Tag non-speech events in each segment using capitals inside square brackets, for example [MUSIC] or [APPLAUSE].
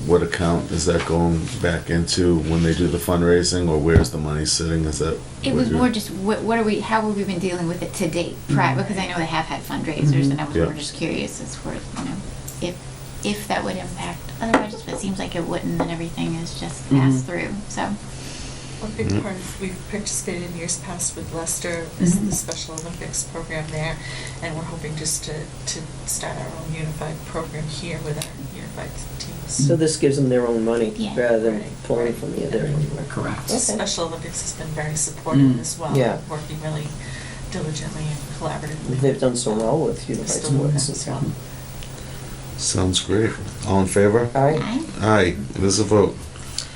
what account is that going back into when they do the fundraising, or where's the money sitting? Is that? It what was you're- more just, what, what are we, how have we been dealing with it to date, prior, because I know they have had fundraisers, and I was Yeah. more just curious as for, you know, if, if that would impact other budgets, but it seems like it wouldn't, and everything is just passed Mhm. through, so. One big Mhm. part of, we've participated in years past with Leicester, is the Mm-hmm. Mhm. Special Olympics program there, and we're hoping just to, to start our own unified program here with our unified teams. So this gives them their own money Yeah. rather than Right, pulling right. from the other anywhere. Correct. The Okay. Special Olympics has been very supportive Mm. as well, Yeah. working really diligently and collaboratively. They've done so well with unified Crystal sports Olympics as well. Sounds great. All in favor? Aye. I- Aye, it is a vote.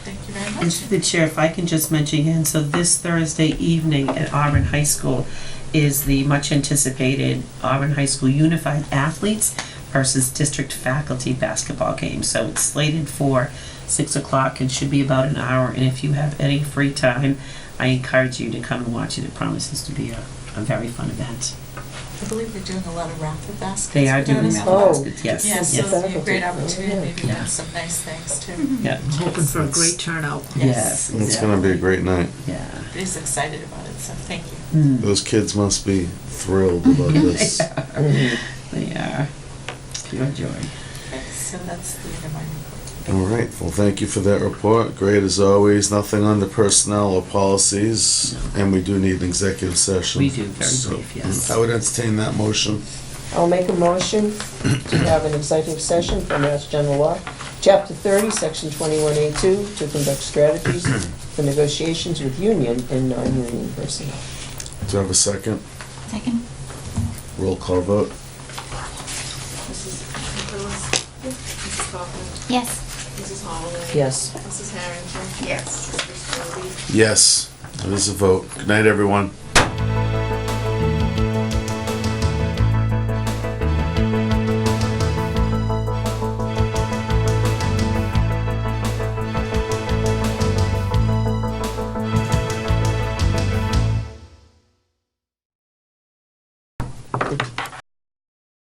Thank you very And much. through the chair, if I can just mention again, so this Thursday evening at Auburn High School is the much anticipated Auburn High School Unified Athletes versus District Faculty Basketball Game. So it's slated for six o'clock and should be about an hour. And if you have any free time, I encourage you to come and watch it. It promises to be a, a very fun event. I believe they're doing a lot of raffle baskets. They are for that doing as that well. Oh. baskets, yes. Yeah, Yes. so it'll be a great Faculty. opportunity, Yeah. maybe Yeah. have some nice things too. Yeah. Mm-hmm. I'm hoping for a great turnout. Yes. It's gonna be a great night. Yeah. He's excited about it, so thank you. Mm. Those kids must be thrilled [LAUGHS] about this. Mhm. They are. Pure joy. Okay, So that's the end of my report. All right, well, thank you for that report. Great as always, nothing on the personnel or policies, and we do need an executive session. We do, very So, mm, brief, yes. I would entertain that motion. I'll make a motion to have an executive session for Mass General Law, Chapter 30, Section 21A2, to conduct strategies for negotiations with union and non-union personnel. Do I have a second? Second, Roll call vote. Mrs. Nicholas? Mrs. Kaufman? yes. Mrs. Holloway? Yes. Mrs. Harrington? Yes. Mrs. Stobie? Yes, that is a vote. Good night, everyone.